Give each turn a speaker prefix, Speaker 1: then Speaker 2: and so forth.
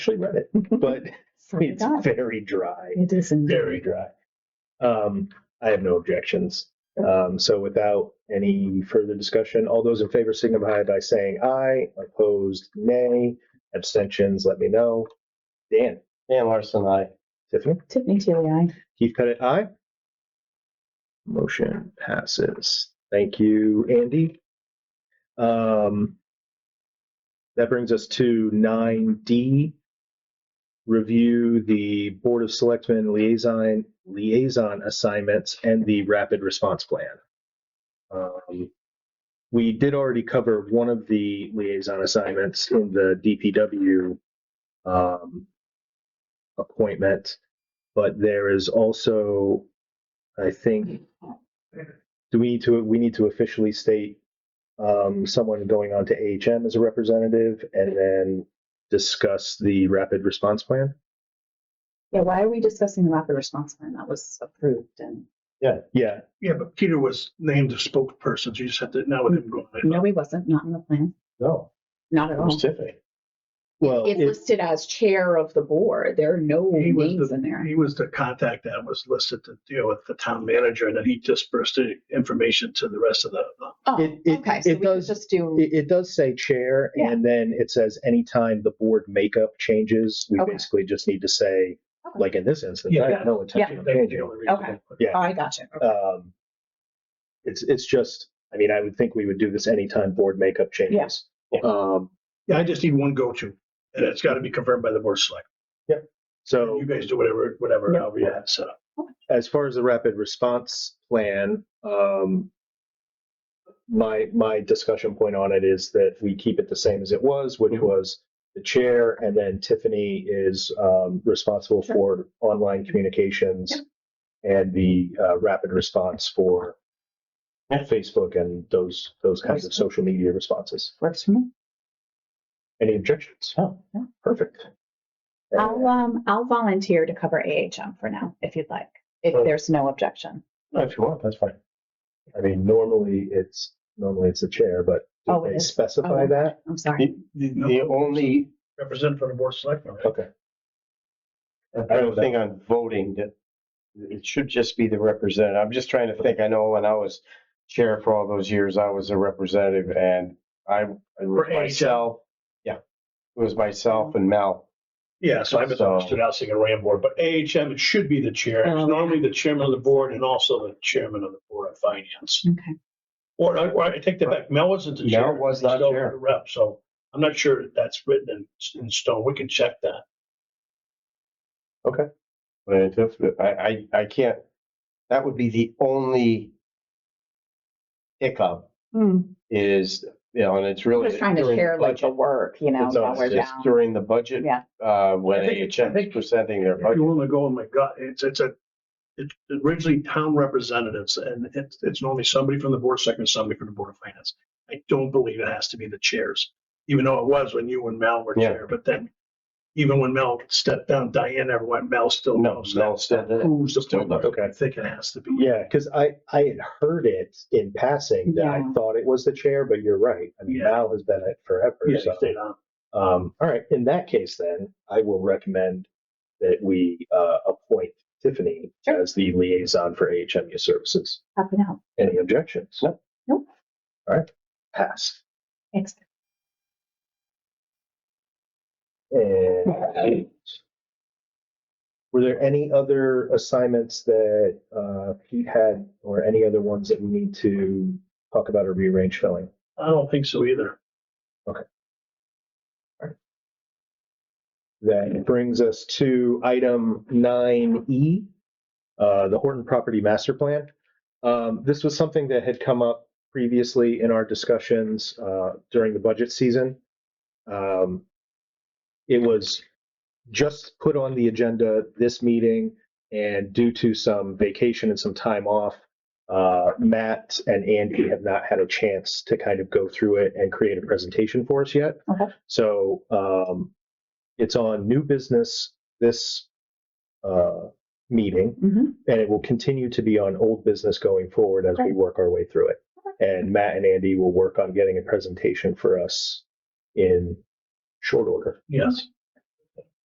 Speaker 1: actually read it, but it's
Speaker 2: God.
Speaker 1: very dry,
Speaker 2: It is indeed.
Speaker 1: very dry. Um, I have no objections. Um, so without any further discussion, all those in favor signify by saying aye, opposed nay, abstentions, let me know. Dan,
Speaker 3: Dan Larson, I.
Speaker 1: Tiffany?
Speaker 2: Tiffany Tealy, aye.
Speaker 1: Keith Pettit, aye. Motion passes. Thank you, Andy. Um, that brings us to nine D. Review the Board of Selectmen liaison, liaison assignments and the rapid response plan. Um, we did already cover one of the liaison assignments in the DPW, um, appointment but there is also, I think, do we need to, we need to officially state
Speaker 2: Mm-hmm.
Speaker 1: um, someone going on to AHM as a representative and then discuss the rapid response plan?
Speaker 2: Yeah, why are we discussing the rapid response plan that was approved and,
Speaker 1: Yeah,
Speaker 4: Yeah, but Peter was named a spokesperson, so you just have to, now with him going. I
Speaker 2: no, he wasn't, not in the plan,
Speaker 3: No,
Speaker 2: not at
Speaker 3: it was
Speaker 2: all.
Speaker 3: Tiffany.
Speaker 1: well,
Speaker 2: It's
Speaker 1: it-
Speaker 2: listed as chair of the board. There are no
Speaker 4: He was
Speaker 2: names in
Speaker 4: the,
Speaker 2: there.
Speaker 4: he was the contact that was listed to deal with the town manager and then he dispersed the information to the rest of the.
Speaker 2: Oh,
Speaker 1: It- it-
Speaker 2: okay, so
Speaker 1: it
Speaker 2: we could
Speaker 1: does-
Speaker 2: just do,
Speaker 1: it, it does say chair
Speaker 2: Yeah.
Speaker 1: and then it says anytime the board makeup changes, we
Speaker 2: Okay.
Speaker 1: basically just need to say,
Speaker 2: Okay.
Speaker 1: like in this instance, I have no intention of
Speaker 4: That was the
Speaker 1: changing.
Speaker 4: only reason.
Speaker 2: Okay.
Speaker 1: Yeah.
Speaker 2: oh, I got you.
Speaker 1: Um, it's, it's just, I mean, I would think we would do this anytime board makeup changes.
Speaker 3: Yeah.
Speaker 1: Um,
Speaker 4: Yeah, I just need one go-to and it's gotta be confirmed by the board of select.
Speaker 1: so.
Speaker 4: You guys do whatever, whatever,
Speaker 2: Yeah.
Speaker 4: however you have, so.
Speaker 1: as far as the rapid response plan, um, my, my discussion point on it is that we keep it the same as it was, which
Speaker 3: Mhm.
Speaker 1: was the chair, and then Tiffany is, um, responsible for
Speaker 3: Mm-hmm.
Speaker 1: online communications and the, uh, rapid response for
Speaker 3: Yeah.
Speaker 1: Facebook and those, those kinds of social media responses.
Speaker 2: Works for me.
Speaker 1: Any objections?
Speaker 3: Oh.
Speaker 1: Perfect.
Speaker 2: I'll, um, I'll volunteer to cover AHM for now, if you'd like, if
Speaker 3: Oh.
Speaker 2: there's no objection.
Speaker 3: No, if you want, that's fine.
Speaker 1: I mean, normally it's, normally it's the chair, but
Speaker 2: Oh,
Speaker 1: do
Speaker 2: it
Speaker 1: they
Speaker 2: is.
Speaker 1: specify
Speaker 2: Oh.
Speaker 1: that?
Speaker 2: I'm
Speaker 3: The,
Speaker 2: sorry.
Speaker 3: the, the only,
Speaker 4: Represent from the board of select.
Speaker 1: Okay.
Speaker 3: I don't think on voting that it should just be the representative. I'm just trying to think. I know when I was chair for all those years, I was a representative and I, it was
Speaker 4: For Mm-hmm. AHL.
Speaker 3: myself. Yeah, it was myself and Mel.
Speaker 4: Yeah, so I misunderstood. I was thinking Ram board, but AHM, it should be the chair. It's
Speaker 2: Um,
Speaker 4: normally the chairman of the board and also the chairman of the board of finance.
Speaker 2: Okay,
Speaker 4: Or, I- or I take that back. Mel wasn't the
Speaker 3: Mel
Speaker 4: chair.
Speaker 3: was
Speaker 4: He's
Speaker 3: not
Speaker 4: still
Speaker 3: chair.
Speaker 4: the Rep, so I'm not sure that that's written in, in stone. We can check that.
Speaker 3: But it just- I, I, I can't, that would be the only hiccup
Speaker 2: I'm
Speaker 3: is, you know, and it's really.
Speaker 2: just trying to
Speaker 3: during the
Speaker 2: share like the
Speaker 3: budget.
Speaker 2: work, you know,
Speaker 3: It's
Speaker 2: while
Speaker 3: always
Speaker 2: we're
Speaker 3: just
Speaker 2: down.
Speaker 3: During the budget,
Speaker 2: Yeah.
Speaker 3: uh, when
Speaker 4: I think-
Speaker 3: AHM
Speaker 4: I
Speaker 3: is
Speaker 4: think-
Speaker 3: presenting their
Speaker 4: If
Speaker 3: budget.
Speaker 4: you want to go, oh my God, it's, it's a, it's originally town representatives and it's, it's normally somebody from the board of second, somebody from the board of finance. I don't believe it has to be the chairs, even though it was when you and Mel were
Speaker 3: Yeah.
Speaker 4: chair, but then even when Mel stepped down, Diane never went, Mel still
Speaker 3: No,
Speaker 4: knows.
Speaker 3: Mel said that.
Speaker 4: Who's the
Speaker 3: Still
Speaker 4: point?
Speaker 3: does.
Speaker 4: Okay, I think it has to be.
Speaker 1: Yeah, because I, I had heard it in passing that I
Speaker 2: Yeah.
Speaker 1: thought it was the chair, but you're right. I mean,
Speaker 4: Yeah.
Speaker 1: Mal has been it forever.
Speaker 4: Yeah,
Speaker 1: so,
Speaker 4: he stayed on.
Speaker 1: um, all right. In that case, then I will recommend that we uh, appoint Tiffany
Speaker 2: Sure.
Speaker 1: as the liaison for AHMU services.
Speaker 2: Happy now.
Speaker 1: Any objections?
Speaker 3: No.
Speaker 2: Nope.
Speaker 1: All right. Pass.
Speaker 2: Thanks.
Speaker 1: And were there any other assignments that uh, Pete had, or any other ones that we need to talk about or rearrange filling?
Speaker 4: I don't think so either.
Speaker 1: That brings us to item nine E, uh, the Horton Property Master Plan. Um, this was something that had come up previously in our discussions, uh, during the budget season. Um, it was just put on the agenda this meeting and due to some vacation and some time off, uh, Matt and Andy have not had a chance to kind of go through it and create a presentation for us yet.
Speaker 2: Okay.
Speaker 1: So, um, it's on new business this uh, meeting,
Speaker 2: Mhm.
Speaker 1: and it will continue to be on old business going forward as we
Speaker 2: Great.
Speaker 1: work our way through it. And Matt and Andy will work on getting a presentation for us in short order.
Speaker 4: Yes.